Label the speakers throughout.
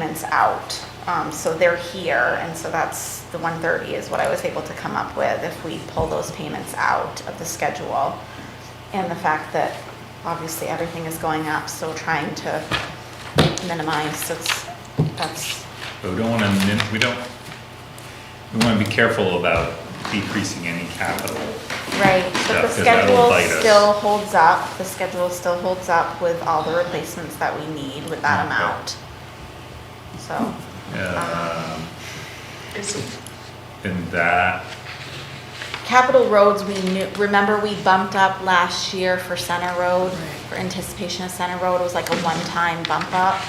Speaker 1: weekends out. Um, so they're here, and so that's, the one thirty is what I was able to come up with if we pull those payments out of the schedule. And the fact that obviously everything is going up, so trying to minimize, it's, that's,
Speaker 2: But we don't wanna, min- we don't, we wanna be careful about decreasing any capital.
Speaker 1: right. But
Speaker 2: Yeah,
Speaker 1: the
Speaker 2: 'cause that'll
Speaker 1: schedule
Speaker 2: bite us.
Speaker 1: still holds up, the schedule still holds up with all the replacements that we need with that
Speaker 2: Okay.
Speaker 1: amount.
Speaker 2: Mm-hmm.
Speaker 1: So,
Speaker 2: Um,
Speaker 3: Is it-
Speaker 2: and that,
Speaker 1: Capital roads, we knew, remember we bumped up last year for Center Road,
Speaker 3: Right.
Speaker 1: for anticipation of Center Road, it was like a one-time bump up.
Speaker 2: Mm.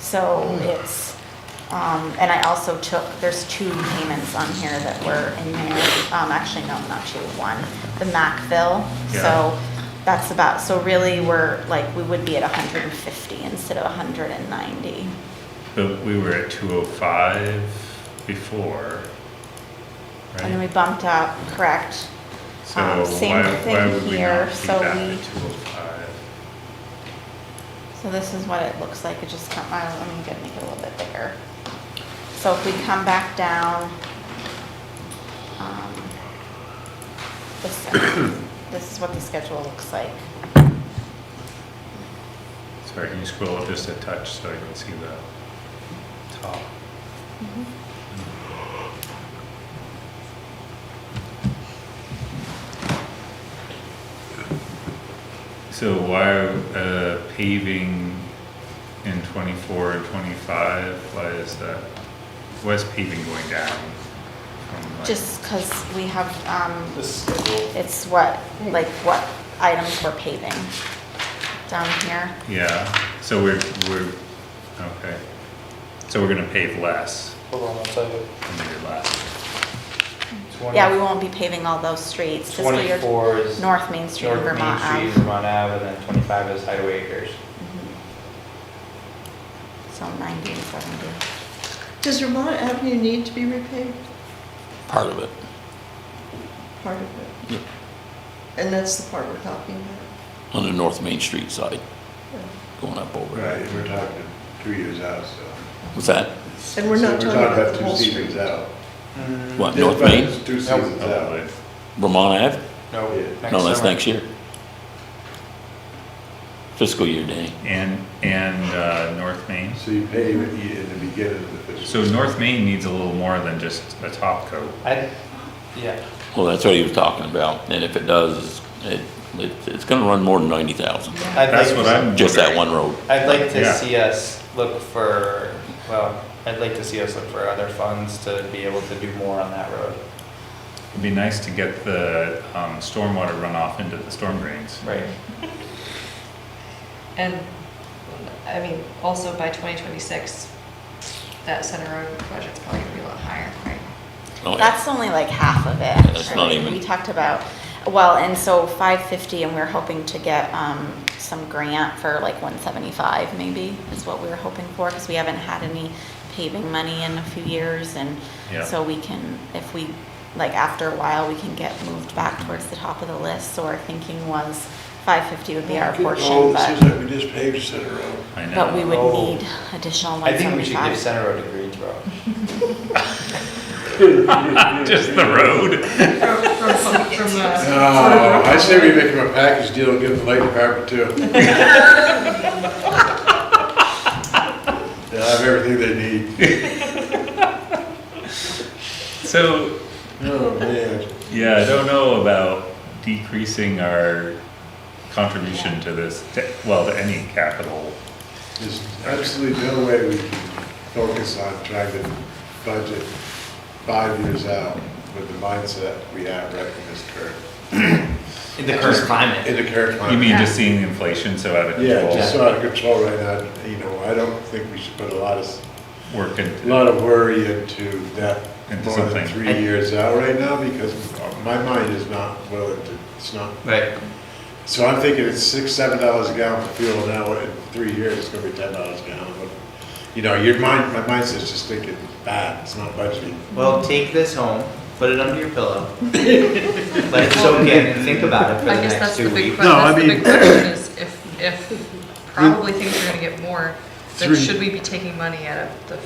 Speaker 1: So it's, um, and I also took, there's two payments on here that were in there, um, actually, no, not two, one, the Macville.
Speaker 2: Yeah.
Speaker 1: So that's about, so really, we're, like, we would be at hundred and fifty instead of hundred and ninety.
Speaker 2: but we were at two oh five before,
Speaker 1: And then we
Speaker 2: right?
Speaker 1: bumped up, correct?
Speaker 2: So
Speaker 1: um, same
Speaker 2: why, why
Speaker 1: thing
Speaker 2: would we
Speaker 1: here,
Speaker 2: not be
Speaker 1: so
Speaker 2: back
Speaker 1: we-
Speaker 2: at two oh five?
Speaker 1: So this is what it looks like, it just come, I, I'm gonna make it a little bit bigger. So if we come back down, um, this, this is what the schedule looks like.
Speaker 2: Sorry, can you scroll up just a touch so I can see the top?
Speaker 4: Mm-hmm.
Speaker 2: So why, uh, paving in twenty-four and twenty-five, why is that, why is paving going down? from like-
Speaker 1: Just cause we have, um,
Speaker 4: This schedule,
Speaker 1: it's what, like what items we're paving down here.
Speaker 2: Yeah, so we're, we're, okay, so we're gonna pave less
Speaker 4: hold on one second.
Speaker 2: than we did last year.
Speaker 1: Yeah, we won't be paving all those streets, fiscal year,
Speaker 4: Twenty-four is North
Speaker 1: North Main Street,
Speaker 4: Main
Speaker 1: Vermont
Speaker 4: Street,
Speaker 1: Ave.
Speaker 4: Vermont Ave, and then twenty-five is Hideaway Acres.
Speaker 1: Mm-hmm. So ninety and seventy.
Speaker 3: Does Vermont Avenue need to be repaved?
Speaker 5: part of it.
Speaker 3: Part of it? And that's the part we're talking about?
Speaker 5: on the North Main Street side, going up over.
Speaker 6: Right, we're talking two years out, so.
Speaker 5: What's that?
Speaker 4: Mm-hmm.
Speaker 3: And we're not
Speaker 6: So
Speaker 3: talking about the
Speaker 6: two
Speaker 3: whole
Speaker 6: seasons
Speaker 3: street?
Speaker 6: out.
Speaker 2: Mm-hmm. Uh,
Speaker 5: What, North
Speaker 6: But
Speaker 5: Main,
Speaker 6: it's Two
Speaker 4: Nope.
Speaker 6: seasons out.
Speaker 5: Vermont Ave?
Speaker 4: No,
Speaker 6: Yeah.
Speaker 4: next summer.
Speaker 5: No, that's next year. Fiscal year, Danny.
Speaker 2: And, and uh, North Main.
Speaker 6: So you pave it in the beginning of the fiscal.
Speaker 2: So North Main needs a little more than just a top coat.
Speaker 4: I, yeah,
Speaker 5: Well, that's what he was talking about, and if it does, it, it- it's gonna run more than ninety thousand,
Speaker 4: I'd
Speaker 2: That's
Speaker 4: like
Speaker 2: what
Speaker 4: to-
Speaker 2: I'm.
Speaker 5: just that
Speaker 2: wondering.
Speaker 5: one road.
Speaker 4: I'd like
Speaker 2: Yeah.
Speaker 4: to see us look for, well, I'd like to see us look for other funds to be able to do more on that road.
Speaker 2: It'd be nice to get the, um, stormwater runoff into the storm drains.
Speaker 4: Right.
Speaker 7: And, I mean, also by 2026, that Center Road project's probably gonna be a lot higher, right?
Speaker 5: Oh, yeah.
Speaker 1: That's only like half of it.
Speaker 5: That's
Speaker 1: actually.
Speaker 5: not even-
Speaker 1: We talked about, well, and so five fifty, and we're hoping to get, um, some grant for like one seventy-five maybe, is what we were hoping for, because we haven't had any paving money in a few years, and
Speaker 2: Yeah.
Speaker 1: so we can, if we, like, after a while, we can get moved back towards the top of the list, so our thinking was five fifty would be our portion,
Speaker 6: Oh, it seems
Speaker 1: but,
Speaker 6: like we just paved Center Road.
Speaker 2: I know.
Speaker 1: but we would
Speaker 4: Oh.
Speaker 1: need additional one
Speaker 4: I think we should give
Speaker 1: seventy-five.
Speaker 4: Center Road to Greensboro.
Speaker 2: Just the road.
Speaker 6: No, I say we make him a package deal and give the light department too. They'll have everything they need.
Speaker 2: So,
Speaker 6: Oh, man.
Speaker 2: yeah, I don't know about decreasing our contribution to this, to- well, to any capital.
Speaker 6: There's absolutely no way we can focus on trying to budget five years out with the mindset we have right in this current,
Speaker 4: In the current climate.
Speaker 6: in the current
Speaker 2: You
Speaker 6: climate.
Speaker 2: mean just seeing the inflation so out of
Speaker 6: Yeah, just
Speaker 2: control?
Speaker 6: so out of control right now, you know, I don't think we should put a lot of,
Speaker 2: Work
Speaker 6: a
Speaker 2: in
Speaker 6: lot of worry into that
Speaker 2: Into
Speaker 6: more than
Speaker 2: something.
Speaker 6: three years out right now, because my mind is not willing to, it's not,
Speaker 4: Right.
Speaker 6: so I'm thinking it's six, seven dollars a gallon for fuel now, in three years, it's gonna be ten dollars a gallon. But You know, your mind, my mindset's just thinking bad, it's not budgeting.
Speaker 4: Well, take this home, put it under your pillow, let it soak in, and think about it for
Speaker 7: I
Speaker 4: the
Speaker 7: guess
Speaker 4: next
Speaker 7: that's the
Speaker 4: two
Speaker 7: big
Speaker 4: weeks.
Speaker 6: No, I
Speaker 7: question, that's the big
Speaker 6: mean-
Speaker 7: question is if, if probably things are gonna get more, So
Speaker 5: Three-
Speaker 7: should we be taking money out of the